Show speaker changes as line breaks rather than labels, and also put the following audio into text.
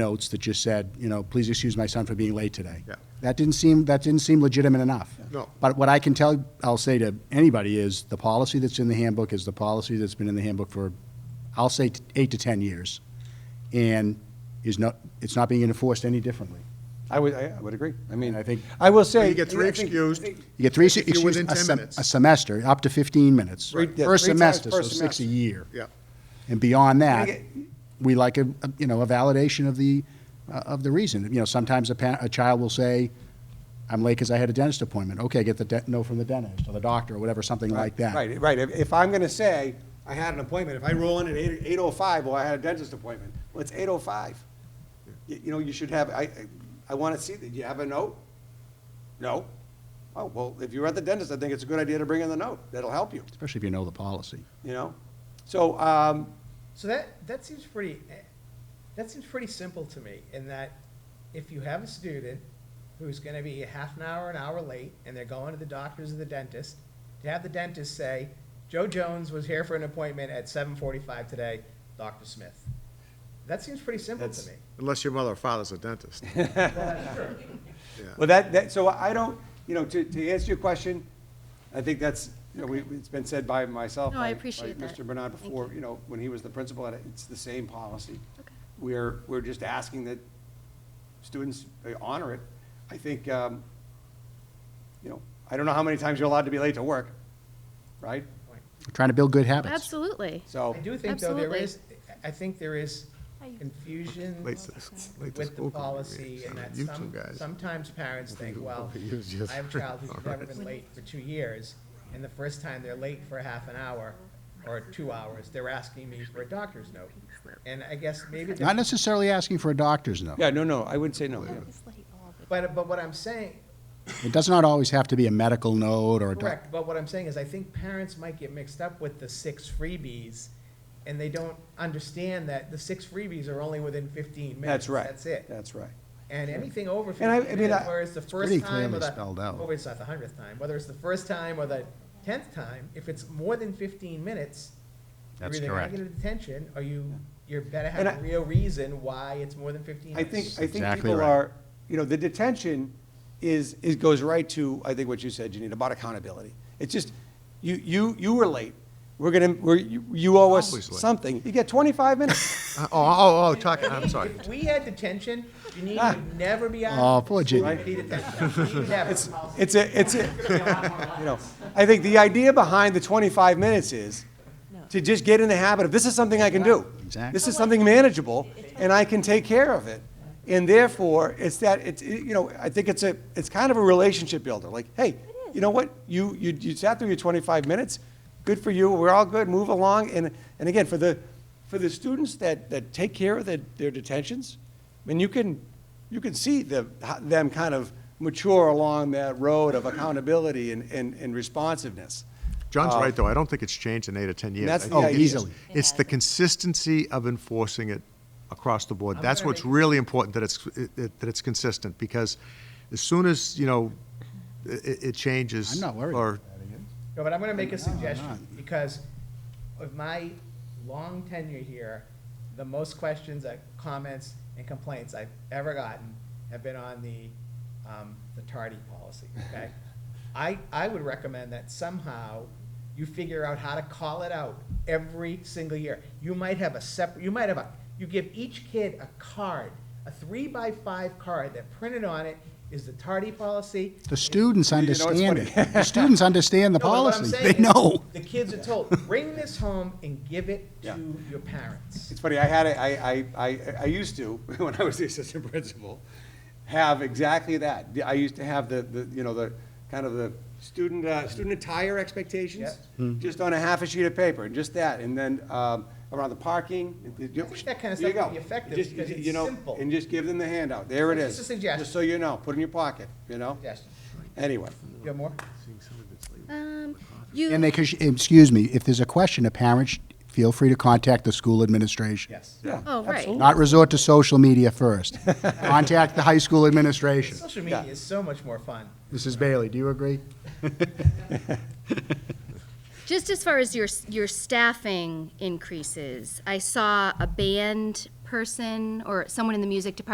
notes that just said, you know, please excuse my son for being late today.
Yeah.
That didn't seem, that didn't seem legitimate enough.
No.
But what I can tell, I'll say to anybody is, the policy that's in the handbook is the policy that's been in the handbook for, I'll say t- eight to 10 years, and is not, it's not being enforced any differently.
I would, I would agree. I mean,
I think-
I will say.
You get three
I think-
excused.
You get three,
If you're
excuse,
within
a
10
sem-
minutes.
a semester, up to 15 minutes.
Right. Yeah,
Per
three times
semester, so
per
six a
semester.
year.
Yeah.
And beyond that,
I get-
we like a, a- you know, a validation of the, uh, of the reason. You know, sometimes a pa, a child will say, I'm late because I had a dentist appointment. Okay, get the de- note from the dentist or the doctor or whatever, something like that.
Right, right. If- If I'm going to say, I had an appointment, if I roll in at eight, eight oh five, well, I had a dentist appointment, well, it's eight oh five. You know, you should have, I, I- I want to see, that. you have a note? No? Oh, well, if you're at the dentist, I think it's a good idea to bring in the note. That'll help you,
Especially if you know the policy.
you know? So, um,
So that, that seems pretty, that seems pretty simple to me, in that if you have a student who's gonna be a half an hour, an hour late, and they're going to the doctors or the dentist, to have the dentist say, Joe Jones was here for an appointment at seven forty-five today, Dr. Smith. That seems pretty simple to me.
Unless your mother or father's a dentist.
Well, that, that, so I don't, you know, to, to answer your question, I think that's, you know, we, it's been said by myself.
No, I
by- by
appreciate that.
Mr. Bernard
Thank
before, you know, when he was the principal, and it's the same policy.
Okay.
We're, we're just asking that students uh, honor it. I think, um, you know, I don't know how many times you're allowed to be late to work, right?
We're Trying to build good habits.
Absolutely.
So.
I do think, though, there
Absolutely.
is, I think there is confusion
Late to- late to
with the
school committee
policy
meetings.
and that
You
some,
two guys.
sometimes parents think, well,
He was just-
I have a child who's never been
Alright.
late for two years, and the first time they're late for half an hour or two hours, they're asking me for a doctor's note. And I guess maybe,
Not
the-
necessarily asking for a doctor's note.
Yeah, no, no, I wouldn't say no. yeah.
but, but what I'm saying,
It does not always have to be a medical note or a. doc-
correct, but what I'm saying is I think parents might get mixed up with the six freebies, and they don't understand that the six freebies are only within fifteen minutes.
That's right.
That's it.
That's right.
And anything over
And I- I
fifteen
mean,
minutes,
I-
whether it's the
pretty
first time
clearly
or
spelled
the,
out.
or it's not the hundredth time, whether it's the first time or the tenth time, if it's more than fifteen minutes,
That's
you're either
correct.
gonna get a detention, or you, you're better have
And
a
I-
real reason why it's more than fifteen
I
minutes.
think, I think
exactly
people
right.
are, you know, the detention is, is, goes right to, I think what you said, Janine, about accountability. It's just, you, you, you were late. We're gonna, we're, you- you owe us
Always late.
something. You get twenty-five minutes.
Oh, oh, oh, talking, I'm sorry.
If we had detention,
Ah.
Janine would never be out.
Oh, poor Janine.
It's, it's a, it's a, you know, I think the idea behind the twenty-five minutes is to just get in the habit of, this is something I can do.
Exactly.
This is something manageable, and I can take care of it. And therefore, it's that, it's, it- you know, I think it's a, it's kind of a relationship builder, like, hey, you know what? You, you, you sat through your twenty-five minutes, good for you, we're all good, move along. And, and again, for the, for the students that, that take care of their, their detentions, I mean, you can, you can see the, how- them kind of mature along that road of accountability and, and, and responsiveness.
John's right, though. I don't think it's changed in eight or 10 years.
That's
I
the
think
idea.
it's-
Easily.
It's the consistency of enforcing it across the board.
I'm
That's
gonna
what's
make-
really important, that it's, it- it- that it's consistent, because as soon as, you know, it, it changes.
I'm not worried
Or,
about that again.
No, but I'm gonna make a
I'm
suggestion,
not.
because of my long tenure here, the most questions, uh, comments, and complaints I've ever gotten have been on the, um, the tardy policy, okay? I, I would recommend that somehow you figure out how to call it out every single year. You might have a separate, you might have a, you give each kid a card, a three-by-five card that printed on it is the tardy policy,
The students
know, it's
understand
funny.
it. The students understand the
no, but what I'm
policy.
saying
They
is
know.
The kids are told, bring this home and give it
Yeah.
to your parents.
It's funny, I had, a- I, I, I, I used to, when I was the assistant principal, have exactly that. I used to have the, the, you know, the, kind of the student, uh, student attire expectations, just on a half a sheet of paper, and just that, and then, um, around the parking. and you-
I think that kind of
there you
stuff would
go.
be effective
Just,
because
you
it's
know,
simple.
And just give them the handout, there it
It's
is.
just a suggestion.
Just so you know, put it in your pocket, you know?
Suggestion.
Anyway,
You have more?
Um, you,
And they, could- excuse me, if there's a question, a parent, sh- feel free to contact the school administration.
Yes.
yeah.
oh, right.
absolutely.
Not resort to social media first. Contact the high school administration.
Social media
Yeah.
is so much more fun.
Mrs. Bailey, do you agree?
Just as far as your, your staffing increases, I saw a band person or someone in the music department